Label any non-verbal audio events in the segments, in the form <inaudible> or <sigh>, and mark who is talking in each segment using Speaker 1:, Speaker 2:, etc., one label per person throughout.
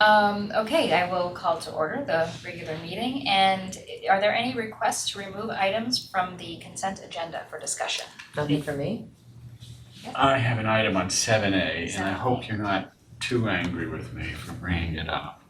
Speaker 1: Um, okay, I will call to order the regular meeting, and are there any requests to remove items from the consent agenda for discussion?
Speaker 2: Nothing for <laughs> me?
Speaker 3: I have an item on seven A, and I
Speaker 1: 7A.
Speaker 3: hope you're not too angry with me for bringing it up.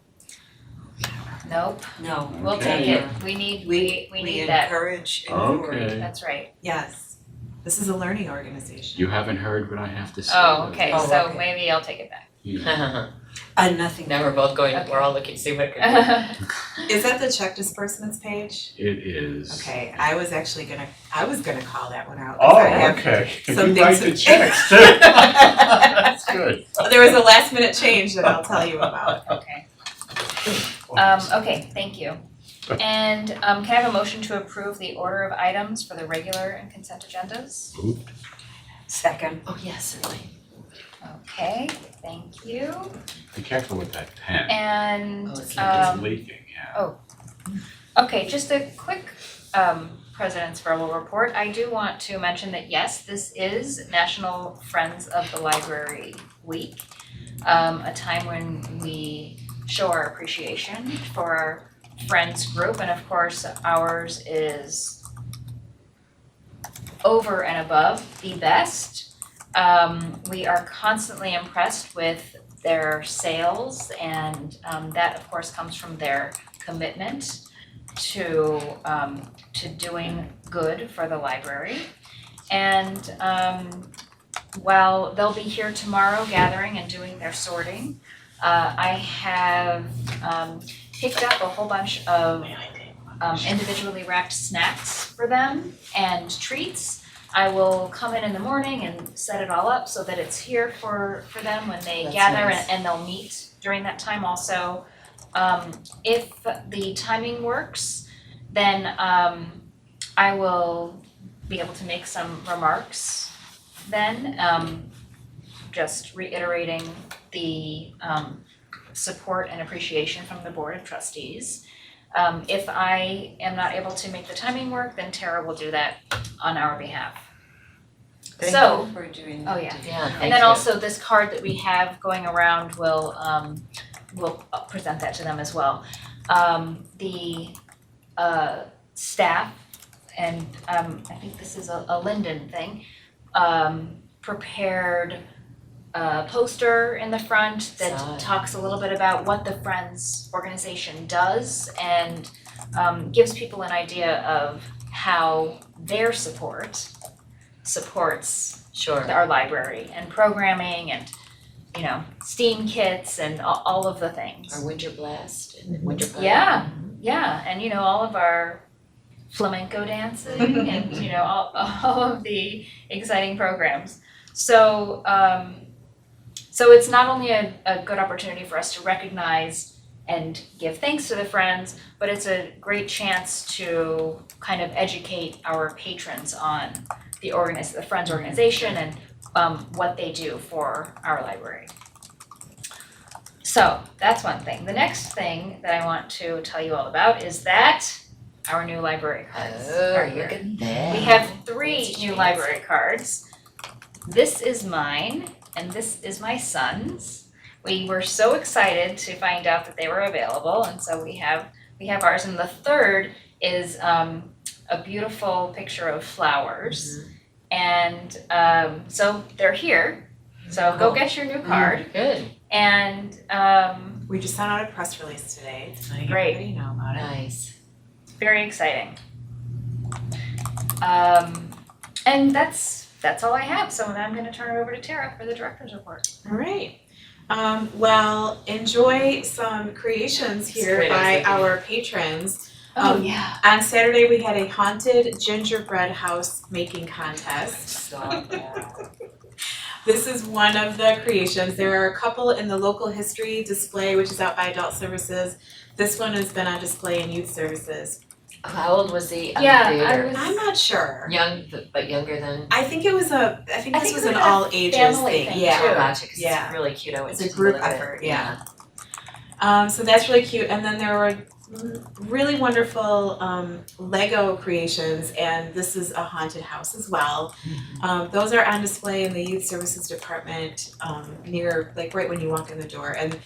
Speaker 1: Nope,
Speaker 4: No,
Speaker 1: we'll take
Speaker 3: Okay.
Speaker 1: it, we need, we, we need
Speaker 4: We
Speaker 1: that,
Speaker 4: encourage, encourage,
Speaker 3: Okay,
Speaker 1: that's right.
Speaker 4: yes. This is a learning organization.
Speaker 3: you haven't heard what I have to say.
Speaker 1: Oh, okay,
Speaker 4: Oh,
Speaker 1: so
Speaker 4: okay.
Speaker 1: maybe I'll take it back.
Speaker 3: Yeah.
Speaker 2: Now
Speaker 4: Uh, nothing.
Speaker 2: Uh-huh. we're both going, we're all looking, see what could be.
Speaker 4: Is that the check disbursements page?
Speaker 3: It is.
Speaker 4: Okay, I was actually gonna, I was gonna call that one out. 'cause
Speaker 3: Oh,
Speaker 4: I have-
Speaker 3: okay, you
Speaker 4: some
Speaker 3: write
Speaker 4: things
Speaker 3: the
Speaker 4: <laughs> that-
Speaker 3: checks too. <laughs> That's good.
Speaker 4: There was a last minute change that I'll tell you about.
Speaker 1: Okay, <laughs> um, okay, thank you. And, um, can I have a motion to approve the order of items for the regular and consent agendas?
Speaker 4: <laughs> Second.
Speaker 2: Oh, yes, certainly.
Speaker 1: Okay, thank you,
Speaker 3: Be careful with that pen,
Speaker 1: and,
Speaker 2: Oh, it's like
Speaker 1: um,
Speaker 3: it's leaking, yeah.
Speaker 1: Okay, just a quick um president's verbal report. I do want to mention that yes, this is National Friends of the Library Week. Um a time when we show our appreciation for our friends group and of course ours is over and above the best. Um we are constantly impressed with their sales and um that of course comes from their commitment to um to doing good for the library. And um while they'll be here tomorrow gathering and doing their sorting, uh I have um picked up a whole bunch of um individually wrapped snacks for them and treats. I will come in in the morning and set it all up so that it's here for for them when they
Speaker 2: That's
Speaker 1: gather
Speaker 2: nice.
Speaker 1: and and they'll meet during that time also. Um if the timing works, then um I will be able to make some remarks then, um just reiterating the um support and appreciation from the Board of Trustees. Um if I am not able to make the timing work, then Tara will do that on our behalf. So-
Speaker 5: Thank you for doing
Speaker 1: Oh,
Speaker 5: that.
Speaker 1: yeah.
Speaker 2: Yeah, thank
Speaker 1: And then
Speaker 2: you.
Speaker 1: also this card that we have going around will um will uh, present that to them as well. Um the uh staff and um I think this is a a Linden thing, um prepared a poster in the front that
Speaker 2: Saw it.
Speaker 1: talks a little bit about what the Friends organization does and um gives people an idea of how their support supports
Speaker 2: Sure.
Speaker 1: our library and programming and, you know, STEAM kits and all, all of the
Speaker 2: Our
Speaker 1: things.
Speaker 2: winter blast and winter party.
Speaker 1: Yeah, yeah, and you know, all of our flamenco dancing and, you know, all, all of the exciting programs. So, um, so it's not only a, a good opportunity for us to recognize and give thanks to the friends, but it's a great chance to kind of educate our patrons on the organiz- the Friends organization and um what they do for our library. So that's one thing. The next thing that I want to tell you all about is that our new library cards are
Speaker 2: Oh,
Speaker 1: here.
Speaker 2: look at that.
Speaker 1: We have three
Speaker 2: That's
Speaker 1: new
Speaker 2: genius.
Speaker 1: library cards. This is mine and this is my son's. We were so excited to find out that they were available and so we have we have ours and the third is um a beautiful picture of flowers. And um so they're here. So go
Speaker 2: Cool.
Speaker 1: get your new card
Speaker 2: Good,
Speaker 1: and um
Speaker 4: We just sent out a press release today to let
Speaker 1: Great.
Speaker 4: everybody know about it.
Speaker 2: nice.
Speaker 1: very exciting. Um and that's that's all I have. So now I'm gonna turn it over to Tara for the director's report.
Speaker 4: All right. Um, well, enjoy some creations here
Speaker 2: Great, I
Speaker 4: by
Speaker 2: was
Speaker 4: our patrons.
Speaker 1: Oh
Speaker 4: Um,
Speaker 1: yeah.
Speaker 4: On Saturday, we had a haunted gingerbread house making
Speaker 2: <laughs>
Speaker 4: contest.
Speaker 2: Saw that.
Speaker 4: This is one of the creations. There are a couple in the local history display, which is out by Adult Services. This one has been on display in Youth Services.
Speaker 2: Oh, How old was the um,
Speaker 1: Yeah, I
Speaker 2: creator?
Speaker 1: was-
Speaker 4: I'm not sure.
Speaker 2: Young, th- but younger than.
Speaker 4: I think it was a. I think
Speaker 1: I
Speaker 4: this
Speaker 1: think
Speaker 4: was
Speaker 1: it was
Speaker 4: an
Speaker 1: like a
Speaker 4: all ages
Speaker 1: family thing,
Speaker 4: Yeah.
Speaker 1: too.
Speaker 2: Oh, gotcha, 'cause
Speaker 4: Yeah.
Speaker 2: it's really cute. I went
Speaker 4: It's a
Speaker 2: to
Speaker 4: group
Speaker 2: look at it.
Speaker 4: effort, yeah. Um, so that's really cute. And then there were really wonderful um, Lego creations, and this is a haunted house as well. Um, those are on display in the youth services department um, near, like right when you walk in the door. And